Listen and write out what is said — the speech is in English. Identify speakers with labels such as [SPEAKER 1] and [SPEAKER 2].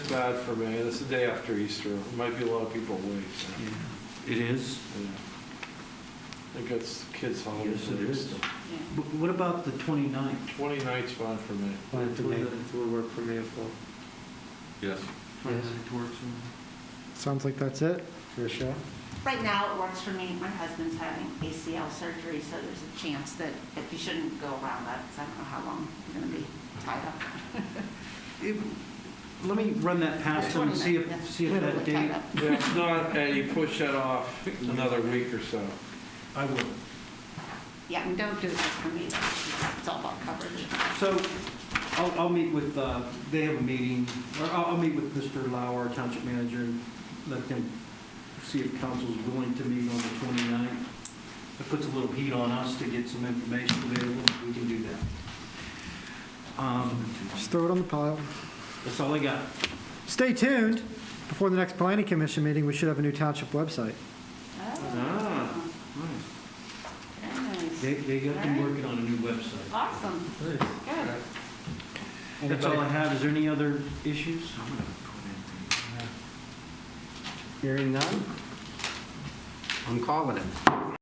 [SPEAKER 1] bad for me. It's the day after Easter. There might be a lot of people away. so,
[SPEAKER 2] Yeah, It is.
[SPEAKER 1] yeah. I think that's kids' holiday.
[SPEAKER 2] Yes, it is. But what about the 29th?
[SPEAKER 1] 29th's fine for me.
[SPEAKER 3] Wanted to make,
[SPEAKER 2] 29th
[SPEAKER 3] would work for me as well.
[SPEAKER 4] Yes.
[SPEAKER 2] 29th works. for
[SPEAKER 3] Sounds like that's it for a show.
[SPEAKER 5] Right now, it works for me. My husband's having ACL surgery, so there's a chance that if you shouldn't go around that, because I don't know how long you're going to be tied up.
[SPEAKER 2] me. It- Let me run that past them, and see
[SPEAKER 5] 29th,
[SPEAKER 2] if,
[SPEAKER 5] yeah.
[SPEAKER 2] see if that
[SPEAKER 5] Really tied
[SPEAKER 2] date.
[SPEAKER 5] up.
[SPEAKER 1] Yeah, if not, and you push that off another week or so.
[SPEAKER 2] I will.
[SPEAKER 5] Yeah, and don't do it just for me. though. It's all about coverage.
[SPEAKER 2] So I'll, I'll meet with, uh, they have a meeting, or I'll, I'll meet with Mr. Lauer, our township manager, and let them see if council's willing to meet on the 29th. It puts a little heat on us to get some information available. We can do that. Um,
[SPEAKER 3] Just throw it on the pile.
[SPEAKER 2] That's all I got.
[SPEAKER 3] Stay tuned. Before the next planning commission meeting, we should have a new township website.
[SPEAKER 2] Ah.
[SPEAKER 5] Oh, very nice.
[SPEAKER 2] They, they got them working on a new website.
[SPEAKER 5] Awesome. Good.
[SPEAKER 2] That's all I have. Is there any other issues?
[SPEAKER 3] Hearing none?
[SPEAKER 6] I'm calling it.